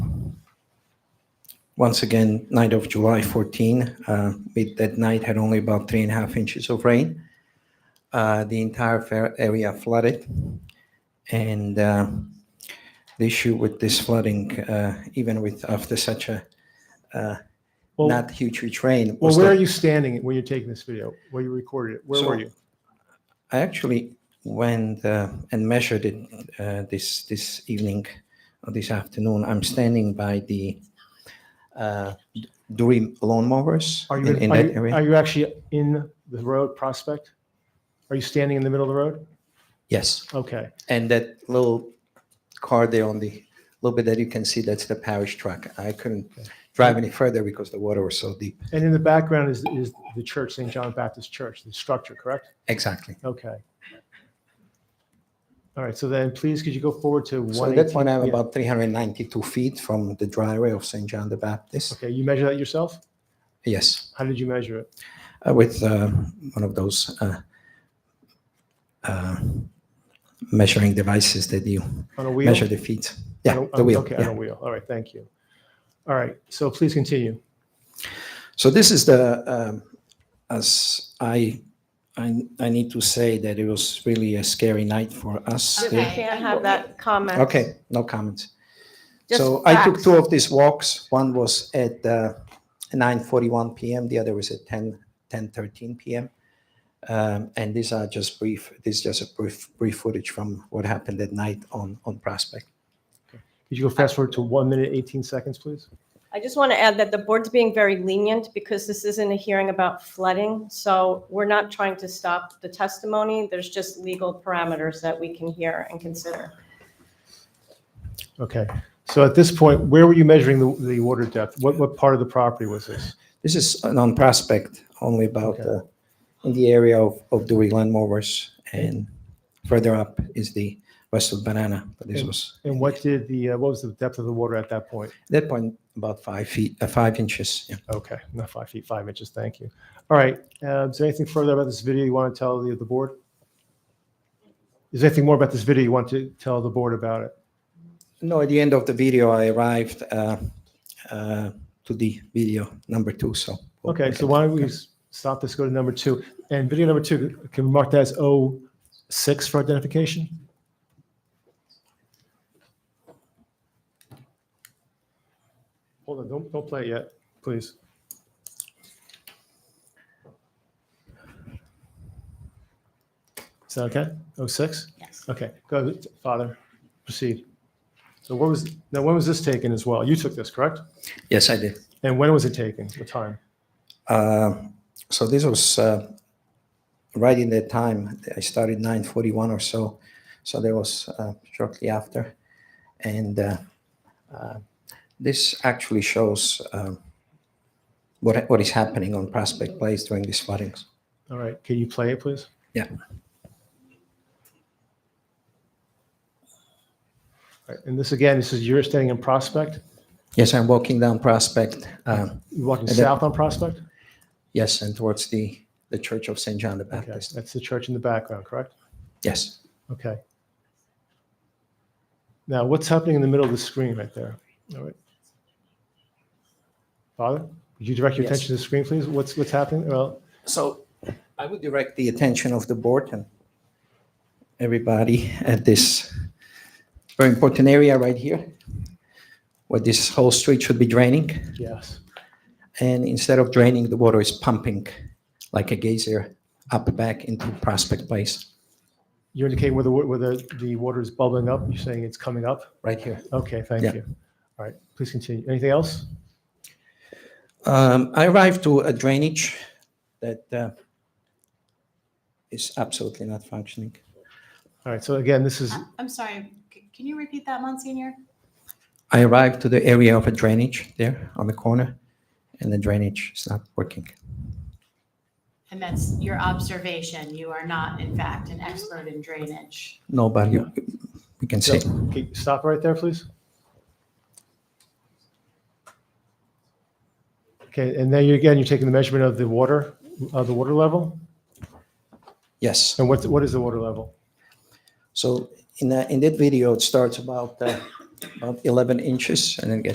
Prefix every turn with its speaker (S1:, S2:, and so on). S1: Once again, night of July 14, uh, we, that night had only about three and a half inches of rain. Uh, the entire fair area flooded. And uh, the issue with this flooding, uh, even with after such a uh,
S2: Well-
S1: not huge, huge rain,
S2: Well,
S1: was
S2: where
S1: that
S2: are you standing when you're taking this video? Where you recorded it? Where
S1: So-
S2: were you?
S1: I actually went uh, and measured it uh, this this evening or this afternoon. I'm standing by the uh, Dury lawnmowers
S2: Are you,
S1: in,
S2: in-
S1: in
S2: are
S1: that
S2: you,
S1: area.
S2: are you actually in the road prospect? Are you standing in the middle of the road?
S1: yes,
S2: Okay.
S1: and that little car there on the little bit that you can see that's the parish truck. I couldn't drive any further because the water was so deep.
S2: And in the background is, is the church, St. John Baptist Church, the structure, correct?
S1: Exactly.
S2: Okay. All right. So then please, could you go forward to
S1: So
S2: one?
S1: at that point, I'm
S2: yeah.
S1: about 392 feet from the driveway of St. John the Baptist.
S2: Okay. You measure that yourself?
S1: Yes.
S2: How did you measure it?
S1: uh, with uh, one of those uh, uh, measuring devices that you
S2: On a wheel?
S1: measure the feet. Yeah,
S2: On a-
S1: the wheel.
S2: Okay.
S1: yeah.
S2: On a wheel. All right. Thank you. All right. So please continue.
S1: So this is the um, as I, I I need to say that it was really a scary night for us.
S3: You
S1: there.
S3: can't have that comment.
S1: Okay, no comments.
S3: Just
S1: so I took
S3: facts.
S1: two of these walks. One was at uh, 9:41 p.m. The other was at 10 10:13 p.m. Um, and these are just brief. This is just a brief brief footage from what happened at night on on Prospect.
S2: Could you go fast forward to one minute, 18 seconds, please?
S3: I just want to add that the board's being very lenient because this isn't a hearing about flooding. So we're not trying to stop the testimony. There's just legal parameters that we can hear and consider.
S2: Okay. So at this point, where were you measuring the, the water depth? What, what part of the property was this?
S1: This is on Prospect, only about
S2: Okay.
S1: uh, in the area of of Dewey Landmowers, and further up is the west of Banana. But this
S2: And-
S1: was
S2: And what did the, uh, what was the depth of the water at that point?
S1: at that point about five feet, uh, five inches. Yeah.
S2: Okay, not five feet, five inches. Thank you. All right. Uh, is there anything further about this video you want to tell the, the board? Is there anything more about this video you want to tell the board about it?
S1: No, at the end of the video, I arrived uh, uh, to the video number two. So we'll-
S2: Okay, so why don't we s- stop this, go to number two. And video number two, can we mark that as 06 for identification? Hold on, don't, don't play it yet, please. Is that okay? 06?
S3: Yes.
S2: Okay, go, ahead, Father, proceed. So what was, now when was this taken as well? You took this, correct?
S1: yes, I did.
S2: And when was it taken, the time?
S1: Uh, so this was uh, right in that time. I started 9:41 or so. So that was uh, shortly after, and uh, uh, this actually shows um, what what is happening on Prospect Place during these floodings.
S2: All right, can you play it, please?
S1: Yeah.
S2: All right, And this again, this is you're standing in Prospect,
S1: Yes, I'm walking down Prospect. Um,
S2: you're walking
S1: And then-
S2: south on Prospect?
S1: yes, and towards the the Church of Saint John the
S2: Okay,
S1: Baptist.
S2: that's the church in the background, correct?
S1: Yes.
S2: Okay. Now, what's happening in the middle of the screen right there? All right. Father, would you direct your
S1: Yes.
S2: attention to the screen, please? What's, what's happening? Well,
S1: So I would direct the attention of the board and everybody at this very important area right here, where this whole street should be draining.
S2: yes,
S1: And instead of draining, the water is pumping like a geyser up back into Prospect Place,
S2: you're indicating where the, wa- where the, the water is bubbling up, you're saying it's coming up?
S1: right here.
S2: Okay, thank
S1: Yeah.
S2: you. All right, please continue. Anything else?
S1: Um, I arrived to a drainage that uh, is absolutely not functioning.
S2: All right, so again, this is,
S4: I'm sorry, c- can you repeat that, Monsignor?
S1: I arrived to the area of a drainage there on the corner, and the drainage is not working.
S4: And that's your observation. You are not, in fact, an expert in drainage.
S1: Nobody, we can see.
S2: okay, stop right there, please. Okay, and then you, again, you're taking the measurement of the water, of the water level?
S1: Yes.
S2: And what, what is the water level?
S1: So in that, in that video, it starts about, uh, about 11 inches and then gets